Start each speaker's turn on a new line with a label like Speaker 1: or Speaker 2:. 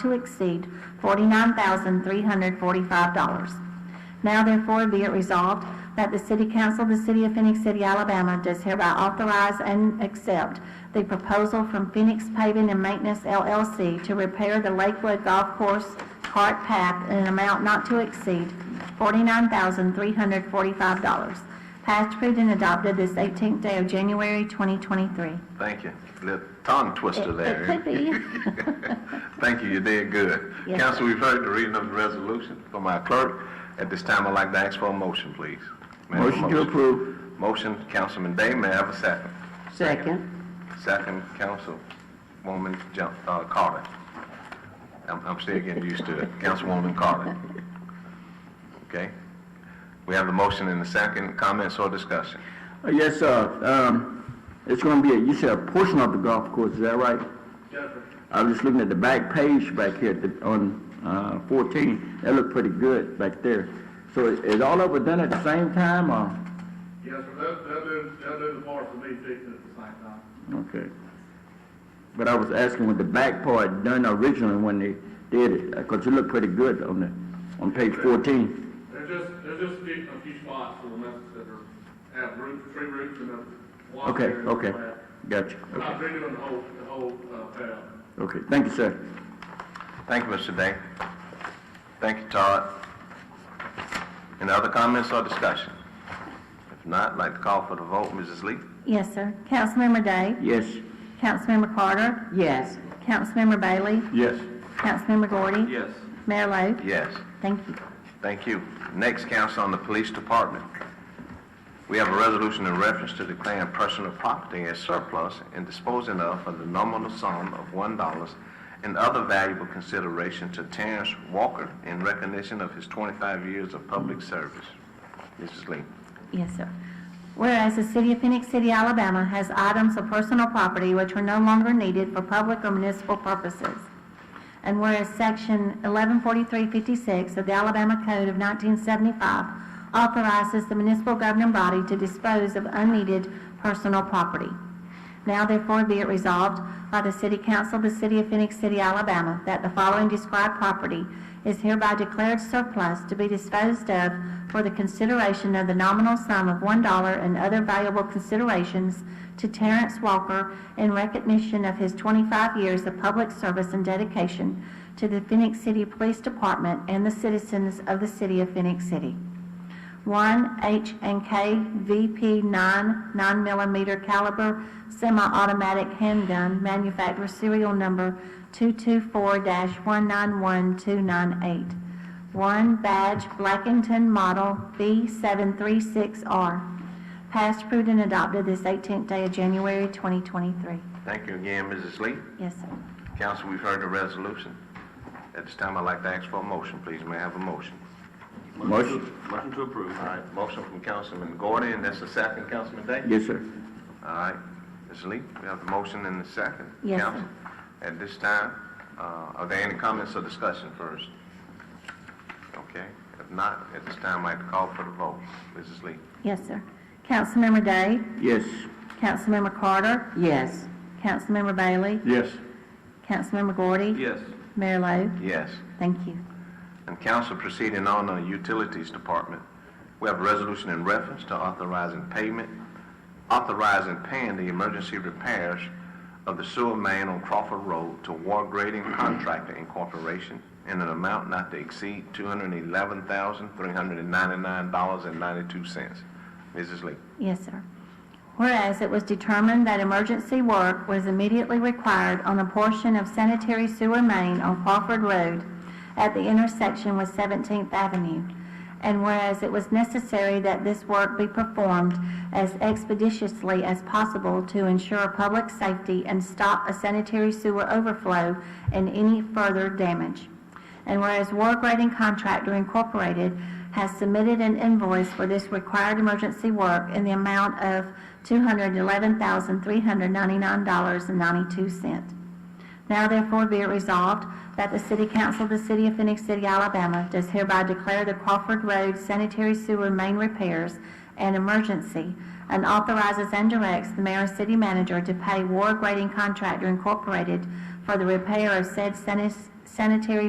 Speaker 1: to exceed $49,345. Now therefore be it resolved that the City Council of the City of Phoenix City, Alabama does hereby authorize and accept the proposal from Phoenix Paving and Maintenance LLC to repair the Lakewood Golf Course cart path in an amount not to exceed $49,345. Passed, approved, and adopted this 18th day of January 2023.
Speaker 2: Thank you. Little tongue twister
Speaker 1: It-
Speaker 2: there.
Speaker 1: It could be.
Speaker 2: Thank you, you did good.
Speaker 1: Yes,
Speaker 2: Council, we've heard the reading of the resolution from our clerk. At this time, I'd like to ask for a motion, please. May I have a
Speaker 3: Motion to approve.
Speaker 2: Motion, Councilman Day, may I have a second?
Speaker 3: Second.
Speaker 2: Second, Councilwoman Jo- uh, Carter. I'm, I'm still getting used to it, Councilwoman Carter. Okay? We have the motion and the second, comments or discussion?
Speaker 3: Uh, Yes, sir. Um, it's gonna be, a you said a portion of the golf course, is that right? I was just looking at the back page back here at the- on, uh, fourteen. That looked pretty good back there. So is is all of it done at the same time or?
Speaker 4: Yes, sir, they'll, they'll do, they'll do the parts and me fixing at the same time.
Speaker 3: Okay. But I was asking with the back part done originally when they did it, because it looked pretty good on the, on page fourteen.
Speaker 4: There's just, there's just a few, a few spots for the messages that are, have roots, tree roots and a water.
Speaker 3: Okay,
Speaker 4: area and all
Speaker 3: okay.
Speaker 4: that.
Speaker 3: Gotcha.
Speaker 4: Not redoing the whole, the whole, uh, path.
Speaker 3: Okay, thank you, sir.
Speaker 2: Thank you, Mr. Day. Thank you, Todd. Any other comments or discussion? If not, I'd like to call for the vote, Mrs. Lee.
Speaker 1: Yes, sir. Councilmember Day?
Speaker 3: Yes.
Speaker 1: Councilmember Carter?
Speaker 5: Yes.
Speaker 1: Councilmember Bailey?
Speaker 3: Yes.
Speaker 1: Councilmember Gordy?
Speaker 4: Yes.
Speaker 1: Mayor Lo?
Speaker 2: Yes,
Speaker 1: Thank you.
Speaker 2: thank you. Next, council on the police department. We have a resolution in reference to declaring personal property as surplus and disposing of for the nominal sum of one dollars and other valuable consideration to Terrence Walker in recognition of his twenty-five years of public service. Mrs. Lee.
Speaker 1: Yes, sir. Whereas the City of Phoenix City, Alabama has items of personal property which are no longer needed for public or municipal purposes. And whereas Section 114356 of the Alabama Code of 1975 authorizes the municipal governing body to dispose of unneeded personal property. Now therefore be it resolved by the City Council of the City of Phoenix City, Alabama, that the following described property is hereby declared surplus to be disposed of for the consideration of the nominal sum of one dollar and other valuable considerations to Terrence Walker in recognition of his twenty-five years of public service and dedication to the Phoenix City Police Department and the citizens of the City of Phoenix City one H and K VP nine nine millimeter caliber semi-automatic handgun, manufacturer serial number two two four one nine one two nine eight. One badge Blackington model B seven three six R. Passed, approved, and adopted this eighteenth day of January twenty twenty-three.
Speaker 2: Thank you again, Mrs. Lee.
Speaker 1: Yes, sir.
Speaker 2: Council, we've heard the resolution. At this time, I'd like to ask for a motion, please. May I have a motion?
Speaker 3: Motion.
Speaker 2: Motion to approve. All right, motion from Councilman Gordon, and that's the second, Councilman Day?
Speaker 3: Yes, sir.
Speaker 2: All right, Ms. Lee, we have the motion and the second.
Speaker 1: Yes, sir.
Speaker 2: Council, At this time, uh, are there any comments or discussion first? Okay, if not, at this time, I'd like to call for the vote. Mrs. Lee?
Speaker 1: Yes, sir. Councilmember Day,
Speaker 3: Yes.
Speaker 1: Councilmember Carter,
Speaker 5: Yes.
Speaker 1: Councilmember Bailey,
Speaker 3: Yes.
Speaker 1: Councilmember Gordy,
Speaker 4: Yes.
Speaker 1: Mayor Lo.
Speaker 2: Yes.
Speaker 1: Thank you.
Speaker 2: And council proceeding on the utilities department, we have a resolution in reference to authorizing payment, authorizing paying the emergency repairs of the sewer main on Crawford Road to War Grading Contractor Incorporated in an amount not to exceed two hundred and eleven thousand, three hundred and ninety-nine dollars and ninety-two cents. Mrs. Lee.
Speaker 1: Yes, sir. Whereas it was determined that emergency work was immediately required on a portion of sanitary sewer main on Crawford Road at the intersection with 17th Avenue, and whereas it was necessary that this work be performed as expeditiously as possible to ensure public safety and stop a sanitary sewer overflow and any further damage. And whereas War Grading Contractor Incorporated has submitted an invoice for this required emergency work in the amount of $211,399.92. Now therefore be it resolved that the City Council of the City of Phoenix City, Alabama does hereby declare the Crawford Road sanitary sewer main repairs an emergency and authorizes and directs the mayor and city manager to pay War Grading Contractor Incorporated for the repair of said sanis- sanitary